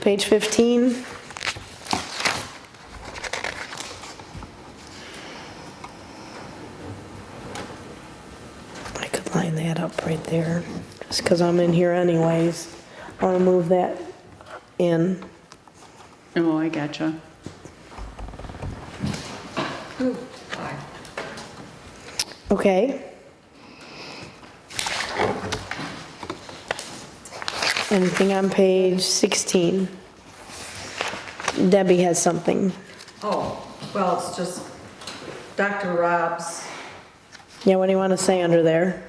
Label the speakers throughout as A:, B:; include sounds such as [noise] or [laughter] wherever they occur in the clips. A: Page 15. I could line that up right there, just because I'm in here anyways. I want to move that in.
B: Oh, I gotcha.
A: Okay. Anything on page 16? Debbie has something.
C: Oh, well, it's just Dr. Rob's,
A: Yeah, what do you want to say under there?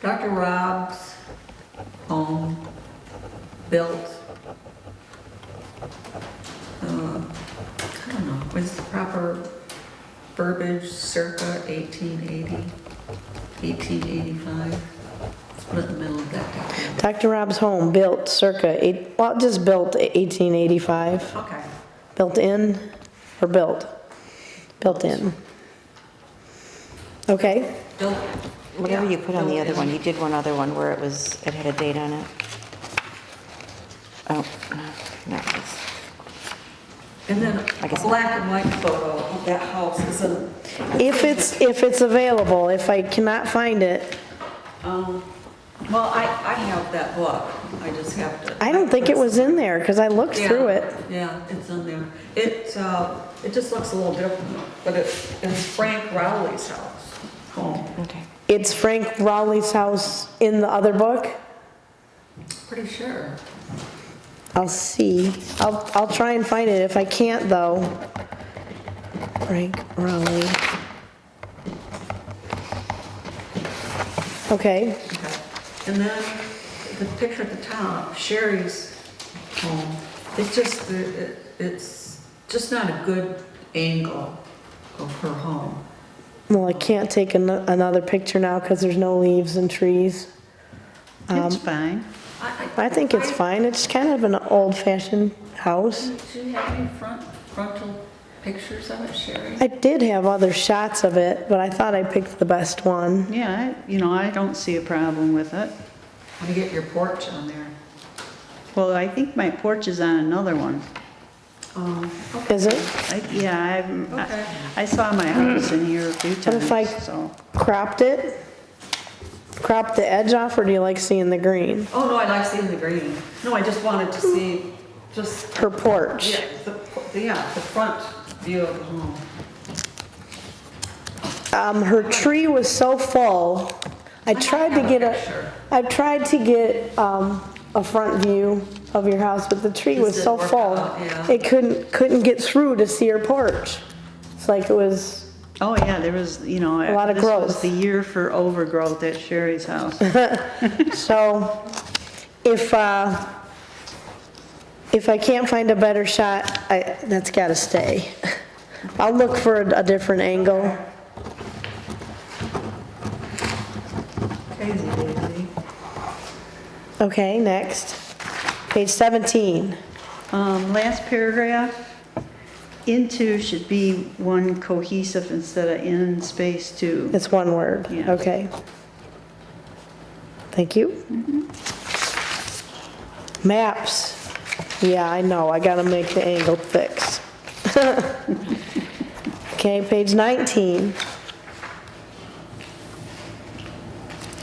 C: Dr. Rob's home built. uh, I don't know, what's the proper verbiage, circa 1880, 1885? Split in the middle of that document.
A: Dr. Rob's home, built circa, eight- well, just built 1885.
C: Okay,
A: Built in or built? Built in. Okay,
C: built.
D: Whatever you put on the
C: yeah,
D: other
C: built
D: one,
C: in.
D: you did one other one where it was, it had a date on it. Oh, no, that was-
C: And then
D: I
C: a
D: guess-
C: black and white photo of that house is in.
A: if it's, if it's available, if I cannot find it,
C: Um, Well, I, I have that book, I just have to.
A: I don't think it was in there because I looked
C: Yeah,
A: through it.
C: Yeah, it's in there. It, uh, it just looks a little different, but it, it's Frank Rowley's house.
A: Oh.
C: Home.
D: okay.
A: It's Frank Rowley's house in the other book?
C: Pretty sure.
A: I'll see. I'll, I'll try and find it. If I can't though, Frank Rowley. Okay,
C: Okay. And then the picture at the top, Sherry's home, it's just, the- it, it's just not a good angle of her home.
A: well, I can't take an- another picture now because there's no leaves and trees.
B: It's
A: Um,
B: fine.
A: I think it's fine. It's kind of an old fashioned house.
C: Do you have any front, frontal pictures of it, Sherry?
A: I did have other shots of it, but I thought I picked the best one.
B: Yeah, I- you know, I don't see a problem with it.
C: Let me get your porch on there.
B: Well, I think my porch is on another one.
C: Um, okay.
A: Is it
B: I- Yeah, I'm-
C: Okay.
B: I, I saw my house in here a few
A: What if I-
B: times, so.
A: cropped it? Cropped the edge off or do you like seeing the green?
C: Oh, no, I like seeing the green. No, I just wanted to see, just
A: Her porch.
C: Yeah, the, the- yeah, the front view of the home.
A: Um, her tree was so full, I tried to
C: have a
A: get
C: picture.
A: a, I tried to get, um, a front view of your house, but the tree
C: Just
A: was so
C: didn't work
A: full.
C: out, yeah.
A: It couldn't, couldn't get through to see her porch. It's like it was,
B: Oh, yeah, there was, you know.
A: A lot of
B: This was
A: growth.
B: the year for overgrowth at
A: [laughs]
B: Sherry's house.
A: so if, uh, if I can't find a better shot, I, that's gotta stay. I'll look for a a different angle.
C: Crazy daisy.
A: Okay, next. Page 17.
B: Um, last paragraph, into should be one cohesive instead of in space two.
A: It's one word,
B: Yeah.
A: okay. Thank you. Maps, yeah, I know, I gotta make the angle fix. [laughs] Okay, page 19.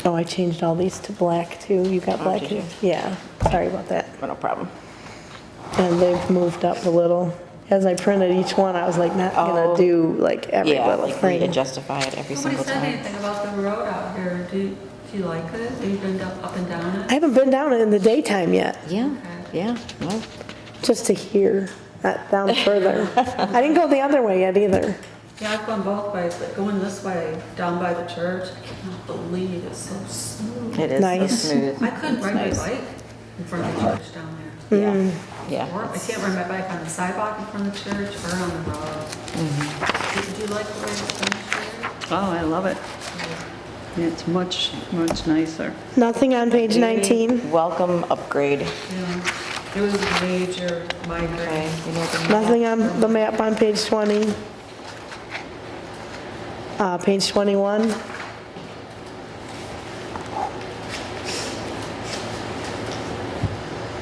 A: Oh, I changed all these to black too, you got black
D: Oh,
A: here?
D: did you?
A: Yeah, sorry about that.
D: No problem.
A: And they've moved up a little. As I printed each one, I was like, not gonna
D: Oh.
A: do like every
D: Yeah,
A: little
D: like we
A: thing.
D: had justify it
C: Nobody
D: every single
C: said
D: time.
C: anything about the road out here. Do, you- do you like it? Have you been up up and down
A: I
C: it?
A: haven't been down in the daytime yet.
D: Yeah, yeah, no.
A: Just to hear, not down further. I didn't go the other way yet either.
C: Yeah, I've gone both ways, but going this way, down by the church, I cannot believe it's so smooth.
D: It is so
A: Nice.
D: smooth.
C: I couldn't ride my
D: nice.
C: bike in front of the church down there.
D: Yeah,
C: Or
D: yeah.
C: I can't ride my bike on the sidewalk in front of the church or on the road.
D: Mm-hmm.
C: Do- Do you like the way it's done
B: Oh, I love it. It's much, much nicer.
A: Nothing on page 19?
D: Welcome upgrade.
C: here? Yeah. It was a major migraine.
D: Okay, you know what the-
A: Nothing on the map on page 20? Uh, page 21?